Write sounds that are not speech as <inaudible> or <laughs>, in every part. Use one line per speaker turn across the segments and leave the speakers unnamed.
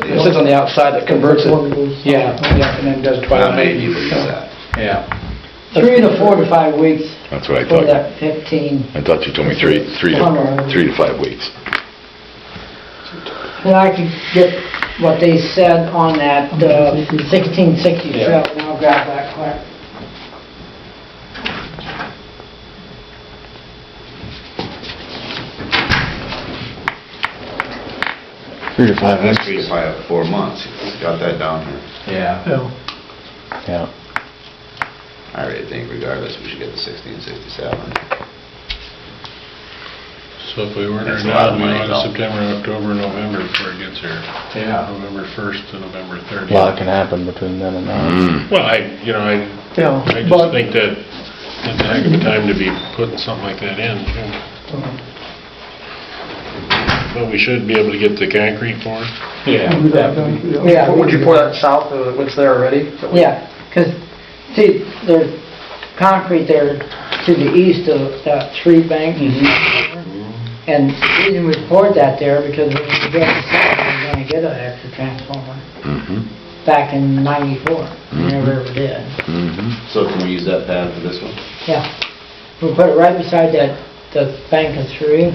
that sits on the outside that converts it. Yeah, yeah, and then does
I
twilight.
may need to use that.
Yeah.
Three to four to five weeks
That's what I
for
thought.
that 15.
I thought you told me three, three to, three to five weeks.
And I could get what they said on that uh, 1660 trail, and I'll grab that quick.
Three to five
That's three to five, four months, got that down here.
Yeah.
Yeah.
I really think regardless, we should get the sixteen sixty-seven.
So if we weren't
That's
in
a lot of money, though.
September, October, November before it gets here.
Yeah.
November 1st to November
A
30th.
lot can happen between then and now.
Mm.
Well, I, you know, I,
Yeah,
I just
but-
think that it's a heck of a time to be putting something like that in, too. But we should be able to get the concrete poured.
Yeah.
Yeah.
Would you pour that south of what's there already?
Yeah, because, see, there's concrete there to the east of that tree bank.
Mm-hmm.
And we didn't report that there because when we get the site, we we're gonna get an extra transformer
Mm-hmm,
back in ninety-four, we never ever did.
mm-hmm.
So can we use that pad for this one?
Yeah, we put it right beside that, the bank of three.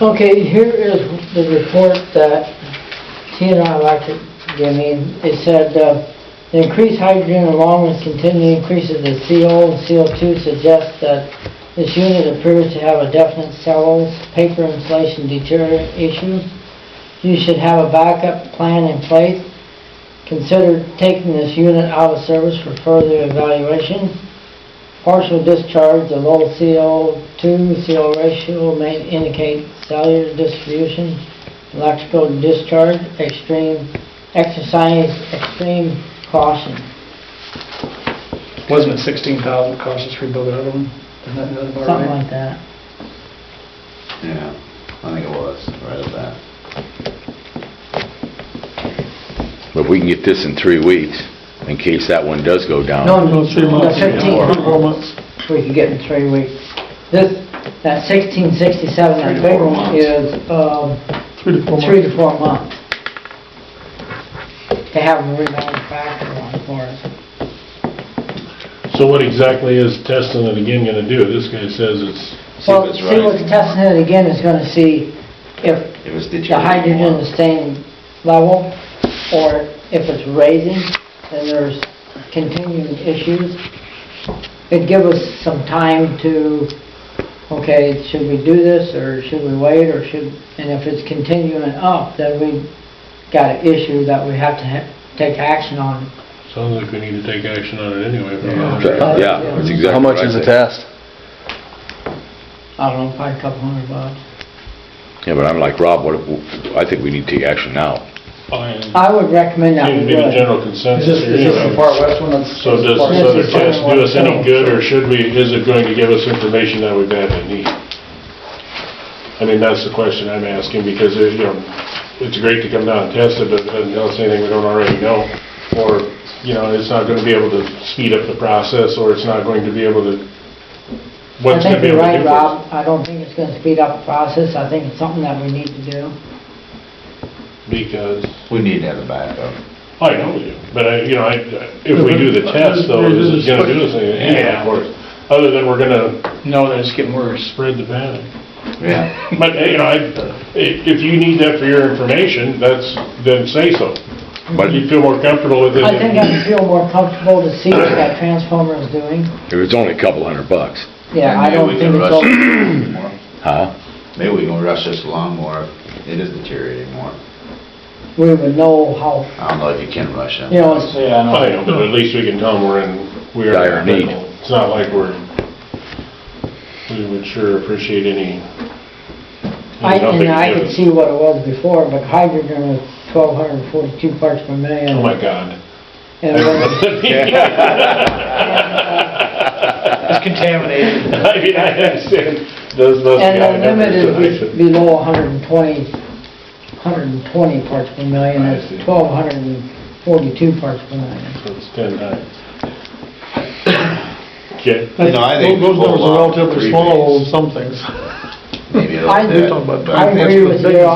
Okay, here is the report that TNR Electric gave me. It said, uh, "The increased hydrogen along with continued increases of CO and CO2 suggests that this unit appears to have a definite cellulose paper insulation deterioration issue. You should have a backup plan in place Consider taking this unit out of service for further evaluation. Partial discharge, the low CO2, CO ratio may indicate cellular distribution, electrical discharge, extreme, exercise extreme caution.
Wasn't it sixteen thousand cost us to rebuild the other one? Isn't that another bar?
Something like that.
Yeah, I think it was, right at that.
But if we can get this in three weeks, in case that one does go down.
No, no, fifteen. We could get in three weeks. This, that sixteen sixty-seven, that
Three to
big
four
one
months.
is, um,
Three to
three to four months. They haven't remanufactured one for us.
So what exactly is testing it again gonna do? This guy says it's,
See
Well,
if it's
see what's
right.
testing it again is gonna see if
If it's
the
deteriorating
hydrogen
more.
is staying level, or if it's raising, then there's continuing issues. It'd give us some time to, okay, should we do this, or should we wait, or should, and if it's continuing up, then we got an issue that we have to ha- take action on.
sounds like we need to take action on it anyway. if we're not-
Yeah, that's exactly
How much
what I
is the
said.
test?
I don't know, probably a couple hundred bucks.
Yeah, but I'm like, Rob, what, if- I think we need to take action now.
Fine.
I would recommend that
Seems to
we
be the
would.
general
Is
consensus.
this, is this the
here.
far west one? that's-
So does this
Yes,
other
it's
test do us any
fine.
good, or should we, is it going to give us information that we badly need? I mean, that's the question I'm asking, because, it, you know, it's great to come down and test it, but it doesn't tell us anything we don't already know, or, you know, it's not gonna be able to speed up the process, or it's not going to be able to,
I
what's gonna
think
be
you're
able to do?
right, Rob. I don't think it's gonna speed up the process. I think it's something that we need to do.
Because,
We need to have a <laughs> backup.
I know we do, but I, you know, I, if we do the test, though, is it gonna do us anything?
Yeah.
Of course, other than we're gonna
No, then it's getting worse.
spread the panic.
Yeah.
But, you know, I- i- if you need that for your information, that's, then say so.
But
Mm-hmm.
You
if
feel more comfortable with it.
I think I'd feel more comfortable to see what that transformer is doing.
it's only a couple hundred bucks,
Yeah, I
Maybe
don't
we
think it's,
can
all-
rush it more.
huh?
Maybe we can rush this along more if it is deteriorating more.
we would know how,
I don't know if you can rush it.
you know, it's,
Yeah,
I know, but at least we can tell them we're in, we're.
Dire need.
It's not like we're, we would sure appreciate any.
I,
any help they
and I
give
could
us.
see what it was before, but hydrogen was twelve hundred and forty-two parts per million.
Oh, my God.
And when-
It's contaminated.
<laughs> I mean, I understand, those, those.
And
guys
the
never
limit is
did it.
be- below hundred and twenty, hundred and twenty parts per million,
I
it's
see.
twelve hundred and forty-two parts per million.
So It's ten times. Okay.
You know, I think
Those
we'll
numbers are
allow
relatively
three
small on
days.
some things.
Maybe it'll
I-
fit,
Talking about
but-
I agree with you,